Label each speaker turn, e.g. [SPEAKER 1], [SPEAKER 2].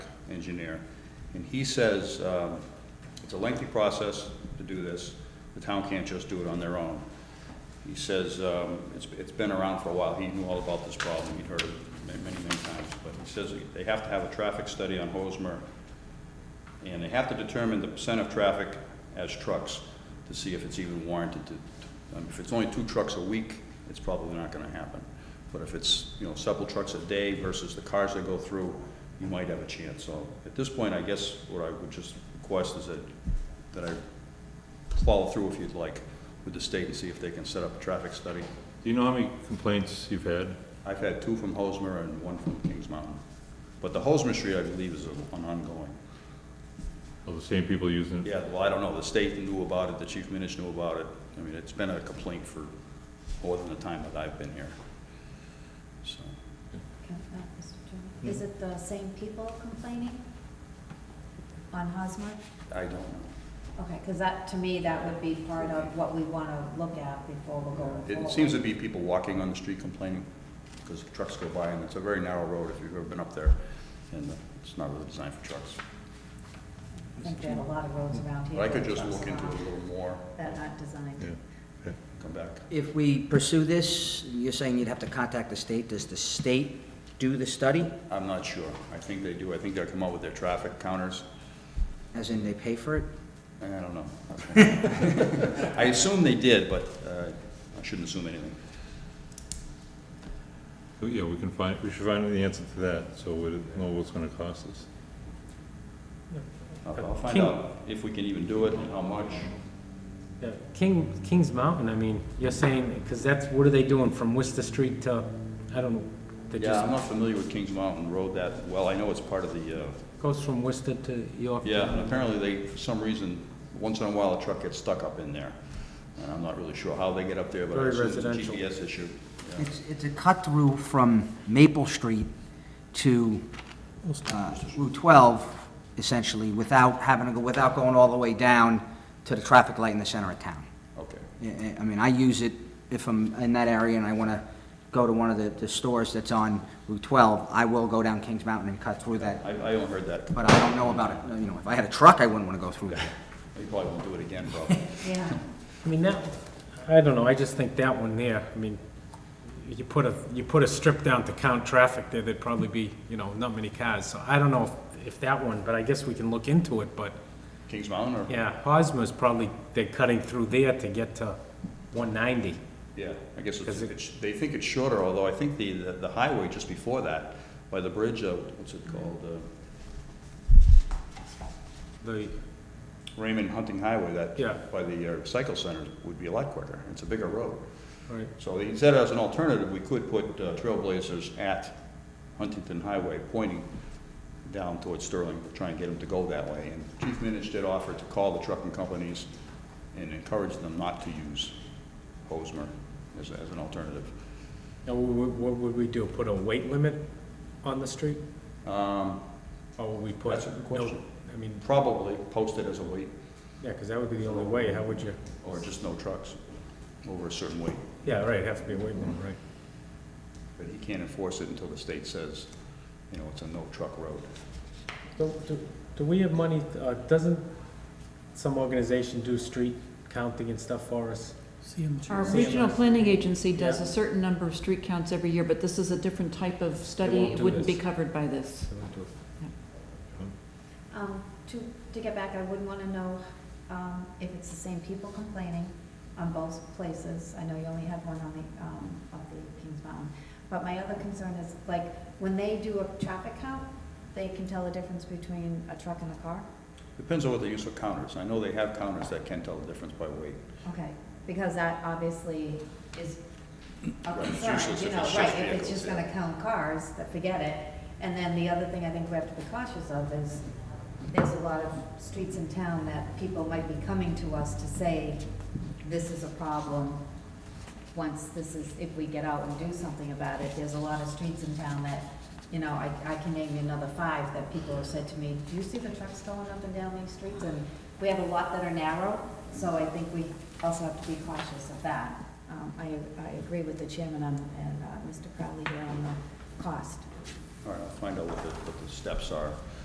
[SPEAKER 1] engineer. And he says, um, it's a lengthy process to do this. The town can't just do it on their own. He says, um, it's, it's been around for a while. He knew all about this problem. He'd heard it ma- many, many times. But he says they have to have a traffic study on Hosmer and they have to determine the percent of traffic as trucks to see if it's even warranted to, to- um, if it's only two trucks a week, it's probably not gonna happen. But if it's, you know, several trucks a day versus the cars that go through, you might have a chance. So at this point, I guess what I would just request is that, that I follow through if you'd like with the state and see if they can set up a traffic study.
[SPEAKER 2] Do you know how many complaints you've had?
[SPEAKER 1] I've had two from Hosmer and one from Kings Mountain. But the Hosmer Street, I believe, is an ongoing.
[SPEAKER 2] Of the same people using it?
[SPEAKER 1] Yeah, well, I don't know, the state knew about it, the chief minister knew about it. I mean, it's been a complaint for more than the time that I've been here. So,
[SPEAKER 3] Can I, Mr. Chairman? Is it the same people complaining on Hosmer?
[SPEAKER 1] I don't know.
[SPEAKER 3] Okay, because that, to me, that would be part of what we want to look at before we go
[SPEAKER 1] It
[SPEAKER 3] forward.
[SPEAKER 1] it seems to be people walking on the street complaining because trucks go by and it's a very narrow road if you've ever been up there. And it's not really designed for trucks.
[SPEAKER 3] I think we have a lot of roads around here.
[SPEAKER 1] But I could
[SPEAKER 3] with
[SPEAKER 1] just
[SPEAKER 3] trucks
[SPEAKER 1] look into it a
[SPEAKER 3] around
[SPEAKER 1] little more,
[SPEAKER 3] That aren't designed.
[SPEAKER 1] come back.
[SPEAKER 4] If we pursue this, you're saying you'd have to contact the state. Does the state do the study?
[SPEAKER 1] I'm not sure. I think they do. I think they'll come out with their traffic counters.
[SPEAKER 4] As in they pay for it?
[SPEAKER 1] I don't know. I assume they did, but uh, I shouldn't assume anything.
[SPEAKER 2] Oh, Yeah, we can find, we should find the answer to that, so we know what's gonna cost us.
[SPEAKER 1] I'll I'll find
[SPEAKER 5] King-
[SPEAKER 1] out if we can even do it and how much.
[SPEAKER 5] Yeah, King, Kings Mountain, I mean, you're saying, because that's, what are they doing from Worcester Street to, I don't know, they
[SPEAKER 1] Yeah, I'm
[SPEAKER 5] just
[SPEAKER 1] not familiar with Kings Mountain Road that well. I know it's part of the, uh,
[SPEAKER 5] goes from Worcester to York.
[SPEAKER 1] yeah, and apparently they, for some reason, once in a while, a truck gets stuck up in there. And I'm not really sure how they get up there, but I
[SPEAKER 5] Very
[SPEAKER 1] assume it's a
[SPEAKER 5] residential.
[SPEAKER 1] GPS issue. Yeah.
[SPEAKER 4] It's, it's a cut through from Maple Street to uh, Route 12, essentially, without having to go, without going all the way down to the traffic light in the center of town.
[SPEAKER 1] Okay,
[SPEAKER 4] I- I I mean, I use it if I'm in that area and I want to go to one of the the stores that's on Route 12, I will go down Kings Mountain and cut through that,
[SPEAKER 1] I, I only heard that.
[SPEAKER 4] but I don't know about it, you know, if I had a truck, I wouldn't want to go through that.
[SPEAKER 1] They probably won't do it again, probably.
[SPEAKER 3] Yeah,
[SPEAKER 5] I mean, that, I don't know, I just think that one there, I mean, you put a, you put a strip down to count traffic there, there'd probably be, you know, not many cars, so I don't know if, if that one, but I guess we can look into it, but,
[SPEAKER 1] Kings Mountain or?
[SPEAKER 5] yeah, Hosmer's probably, they're cutting through there to get to one ninety.
[SPEAKER 1] Yeah, I guess it's,
[SPEAKER 5] Because it-
[SPEAKER 1] it's- they think it's shorter, although I think the, the highway just before that, by the bridge, uh, what's it called? uh,
[SPEAKER 5] The,
[SPEAKER 1] Raymond Hunting Highway, that.
[SPEAKER 5] Yeah.
[SPEAKER 1] By the uh, cycle center would be a lot quicker. It's a bigger road.
[SPEAKER 5] right,
[SPEAKER 1] So he said as an alternative, we could put uh, trailblazers at Huntington Highway pointing down towards Sterling, try and get them to go that way. And Chief Minich did offer to call the trucking companies and encourage them not to use Hosmer as, as an alternative.
[SPEAKER 5] now, what, what would we do, put a weight limit on the street?
[SPEAKER 1] Um,
[SPEAKER 5] Or will we put?
[SPEAKER 1] That's a good question.
[SPEAKER 5] no- I mean,
[SPEAKER 1] Probably post it as a weight
[SPEAKER 5] yeah, because that would be the only way, how would you,
[SPEAKER 1] or just no trucks over a certain weight.
[SPEAKER 5] yeah, right, it'd have to be a weight limit, right?
[SPEAKER 1] But he can't enforce it until the state says, you know, it's a no truck road.
[SPEAKER 5] Do, do- do we have money, uh, doesn't some organization do street counting and stuff for us?
[SPEAKER 6] Our
[SPEAKER 5] Yeah.
[SPEAKER 6] regional planning agency does
[SPEAKER 5] Yeah.
[SPEAKER 6] a certain number of street counts every year, but this is a different type of study.
[SPEAKER 5] won't
[SPEAKER 6] It
[SPEAKER 5] do
[SPEAKER 6] wouldn't be
[SPEAKER 5] this.
[SPEAKER 6] covered by this.
[SPEAKER 3] um, to, to get back, I would want to know, um, if it's the same people complaining on both places. I know you only have one on the, um, of the Kings Mountain. But my other concern is, like, when they do a traffic count, they can tell the difference between a truck and a car?
[SPEAKER 1] Depends on what they use for counters. I know they have counters that can tell the difference by weight.
[SPEAKER 3] Okay, because that obviously is a
[SPEAKER 1] Right, it's
[SPEAKER 3] concern,
[SPEAKER 1] useless
[SPEAKER 3] you
[SPEAKER 1] if
[SPEAKER 3] know,
[SPEAKER 1] it's just
[SPEAKER 3] right, if
[SPEAKER 1] vehicles,
[SPEAKER 3] it's just
[SPEAKER 1] yeah.
[SPEAKER 3] gonna count cars, then forget it. And then the other thing I think we have to be cautious of is, there's a lot of streets in town that people might be coming to us to say, this is a problem. Once this is, if we get out and do something about it, there's a lot of streets in town that, you know, I, I can name you another five that people have said to me, do you see the trucks going up and down these streets? And we have a lot that are narrow, so I think we also have to be cautious of that. Um, I, I agree with the chairman on- and uh, Mr. Crowley here on the cost.
[SPEAKER 1] All right, I'll find out what the, what the steps are.